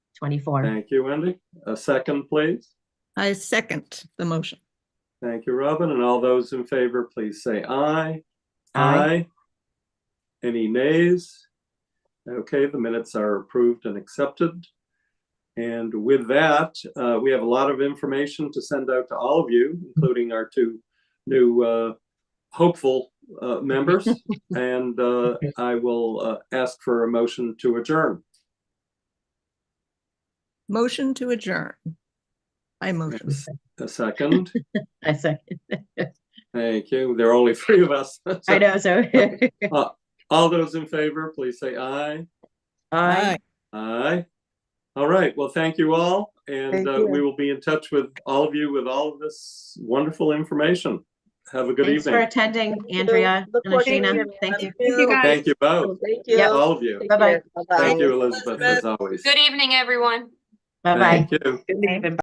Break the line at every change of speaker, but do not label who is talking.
24.
Thank you, Wendy. A second, please.
I second the motion.
Thank you, Robin. And all those in favor, please say aye.
Aye.
Any nays? Okay, the minutes are approved and accepted. And with that, uh, we have a lot of information to send out to all of you, including our two new uh, hopeful uh, members. And uh, I will uh, ask for a motion to adjourn.
Motion to adjourn. I motion.
A second.
I second.
Thank you. There are only three of us.
I know, so.
All those in favor, please say aye.
Aye.
Aye. All right, well, thank you all, and
Thank
uh,
you.
we will be in touch with all of you with all of this wonderful information. Have a good
Thanks for
evening.
attending,
Thank you.
Andrea
Look
and
forward to
Ashina.
hearing
Thank
from
you.
you.
Thank you both,
Thank
Yep.
you.
all of you.
Take
Bye-bye.
care. Bye-bye.
Thank you, Elizabeth, as always.
Good evening, everyone.
Bye-bye.
Thank you.
Good evening.